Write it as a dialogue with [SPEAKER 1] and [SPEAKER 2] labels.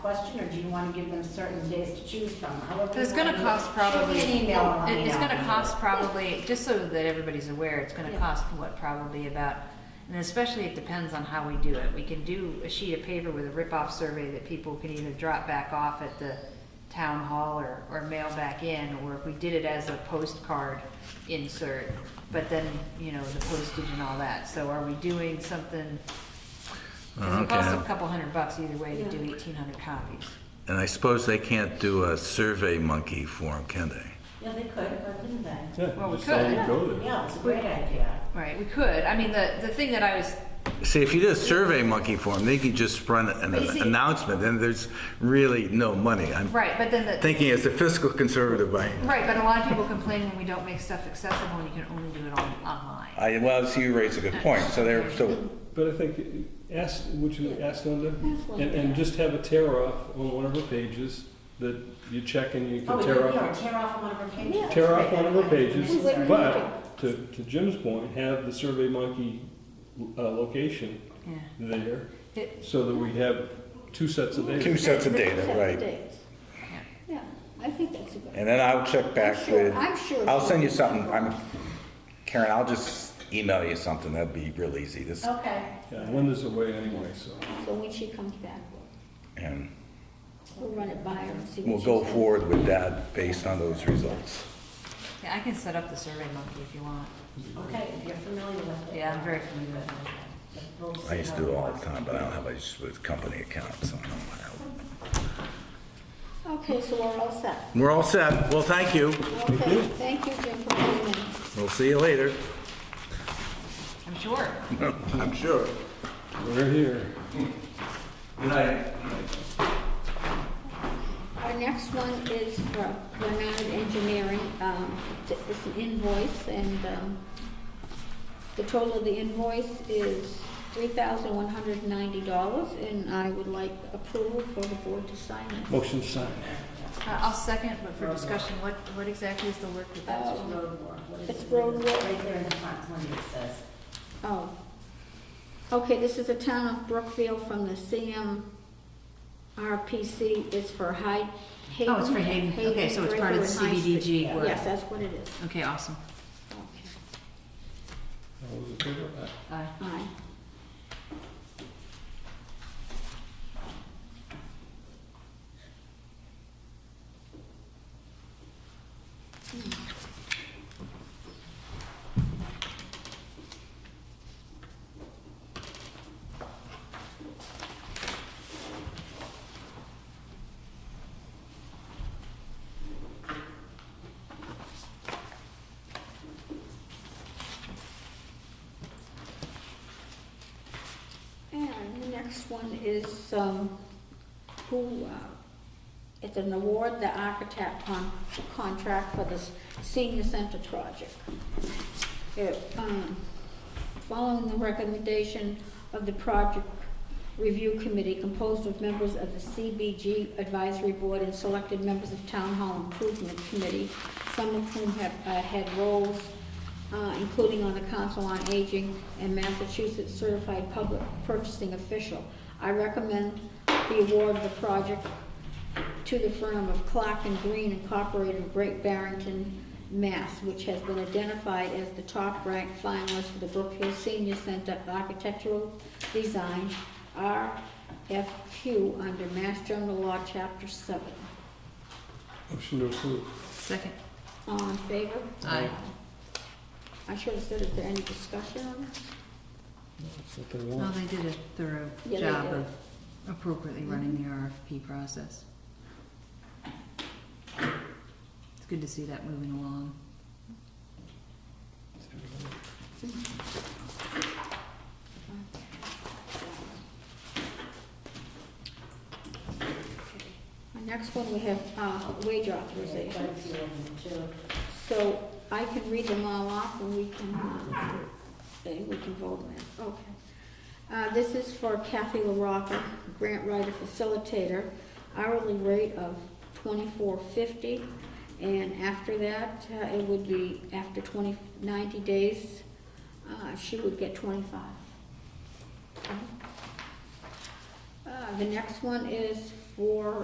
[SPEAKER 1] question, or do you want to give them certain days to choose from? However you
[SPEAKER 2] It's gonna
[SPEAKER 1] wanna do it.
[SPEAKER 2] cost probably,
[SPEAKER 1] Shoot me an email and let
[SPEAKER 2] it-
[SPEAKER 1] me
[SPEAKER 2] it's
[SPEAKER 1] know.
[SPEAKER 2] gonna cost probably, just so that everybody's aware, it's gonna
[SPEAKER 1] Yeah.
[SPEAKER 2] cost what, probably about, and especially it depends on how we do it. We can do a sheet of paper with a rip-off survey that people can either drop back off at the town hall or, or mail back in, or if we did it as a postcard insert, but then, you know, the postage and all that. So are we doing something, 'cause it costs a
[SPEAKER 3] Okay.
[SPEAKER 2] couple hundred bucks either way to do eighteen hundred copies.
[SPEAKER 3] And I suppose they can't do a survey monkey form, can they?
[SPEAKER 1] Yeah, they could, why couldn't they?
[SPEAKER 4] Yeah,
[SPEAKER 2] Well, we
[SPEAKER 4] just tell them to
[SPEAKER 2] could.
[SPEAKER 4] go there.
[SPEAKER 1] Yeah, it's a great idea.
[SPEAKER 2] Right, we could. I mean, the, the thing that I was
[SPEAKER 3] See, if you did a survey monkey form, they could just run an
[SPEAKER 2] But you see-
[SPEAKER 3] announcement, and there's really no money. I'm
[SPEAKER 2] Right, but then the,
[SPEAKER 3] thinking as a fiscal conservative, I,
[SPEAKER 2] right, but a lot of people complain when we don't make stuff accessible and you can only do it on, online.
[SPEAKER 3] I, well, so you raise a good point, so they're, so,
[SPEAKER 4] But I think, uh, ask, would you ask Linda? And, and just have a tear off on one of her pages that you check and you
[SPEAKER 1] Oh,
[SPEAKER 4] can
[SPEAKER 1] we could,
[SPEAKER 4] tear
[SPEAKER 1] yeah,
[SPEAKER 4] off.
[SPEAKER 1] tear off one of our pages.
[SPEAKER 4] Tear off one of her pages,
[SPEAKER 1] That's right.
[SPEAKER 4] but to, to Jim's point, have the Survey Monkey, uh, location
[SPEAKER 2] Yeah.
[SPEAKER 4] there
[SPEAKER 2] It-
[SPEAKER 4] so that we have two sets of data.
[SPEAKER 3] two sets of data,
[SPEAKER 5] Separate
[SPEAKER 3] right?
[SPEAKER 5] days. Yeah, I think that's a good.
[SPEAKER 3] And then I'll check
[SPEAKER 5] I'm
[SPEAKER 3] back
[SPEAKER 5] sure-
[SPEAKER 3] with,
[SPEAKER 5] I'm sure
[SPEAKER 3] I'll send you
[SPEAKER 5] it's-
[SPEAKER 3] something, I'm, Karen, I'll just email you something, that'd be real easy, this,
[SPEAKER 1] Okay.
[SPEAKER 4] Yeah, Linda's away anyway, so.
[SPEAKER 5] So when she comes back,
[SPEAKER 3] and
[SPEAKER 5] we'll run it by her and see what
[SPEAKER 3] we'll
[SPEAKER 5] she
[SPEAKER 3] go
[SPEAKER 5] says.
[SPEAKER 3] forward with that based on those results.
[SPEAKER 2] Yeah, I can set up the Survey Monkey if you want.
[SPEAKER 1] Okay, if you're familiar with it.
[SPEAKER 2] Yeah, I'm very familiar with it.
[SPEAKER 1] We'll see
[SPEAKER 3] I used to do it all the
[SPEAKER 1] how
[SPEAKER 3] time, but I don't have a with company accounts, so I don't have.
[SPEAKER 5] Okay, so we're all set.
[SPEAKER 3] We're all set, well, thank you,
[SPEAKER 5] Okay, thank you, Jim, for coming in.
[SPEAKER 3] we'll see you later.
[SPEAKER 2] I'm sure. Uh,
[SPEAKER 3] I'm sure.
[SPEAKER 4] We're here.
[SPEAKER 3] Good night.
[SPEAKER 5] Our next one is for Bernard Engineering. Um, It's it's an invoice, and um, the total of the invoice is $3,190, and I would like approval for the board to sign this.
[SPEAKER 4] Motion signed.
[SPEAKER 2] Uh, I'll second, but for discussion, what, what exactly is the work that that's?
[SPEAKER 1] It's road work. What is
[SPEAKER 5] It's
[SPEAKER 1] it?
[SPEAKER 5] road work.
[SPEAKER 1] Right there in the front, Linda it says.
[SPEAKER 5] Oh. Okay, this is the town of Brookfield from the CM RPC. It's for Hyde.
[SPEAKER 2] Oh, it's for Hayden. Okay, so it's part of the
[SPEAKER 5] Breaker and High Street.
[SPEAKER 2] CBDG
[SPEAKER 5] Yeah,
[SPEAKER 2] work.
[SPEAKER 5] Yes, that's what it is.
[SPEAKER 2] Okay, awesome.
[SPEAKER 5] Okay.
[SPEAKER 4] All those in favor? Aye.
[SPEAKER 2] Uh,
[SPEAKER 5] Aye. And the next one is, um, who, uh, it's an award, the architect con- contract for the s- senior center project. It, um, Following the recommendation of the project review committee composed of members of the CBG advisory board and selected members of town hall improvement committee, some of whom have, uh, had roles uh, including on the Council on Aging and Massachusetts Certified Public Purchasing Official. I recommend the award of the project to the firm of Clark and Green Incorporated of Great Barrington, Mass., which has been identified as the top-ranked finalist for the Brookfield Senior Center Architectural Design, RFQ, under Mass General Law, Chapter 7.
[SPEAKER 4] Motion to approve.
[SPEAKER 2] second.
[SPEAKER 5] All in favor?
[SPEAKER 2] Aye.
[SPEAKER 5] I should have said, is there any discussion on this?
[SPEAKER 4] That's what they want.
[SPEAKER 2] No, they did a thorough
[SPEAKER 5] Yeah, they
[SPEAKER 2] job
[SPEAKER 5] did.
[SPEAKER 2] of appropriately running the RFP process. It's good to see that moving along.
[SPEAKER 5] Our Next one, we have uh, wage
[SPEAKER 1] There's quite a
[SPEAKER 5] authorizations.
[SPEAKER 1] few of them too.
[SPEAKER 5] So I can read them all off and we can, uh, and we can vote on it. Okay. Uh, This is for Kathy LaRocca, grant writer facilitator, hourly rate of twenty-four fifty. And after that, uh, it would be, after 20 90 days, uh, she would get twenty-five. Uh, The next one is for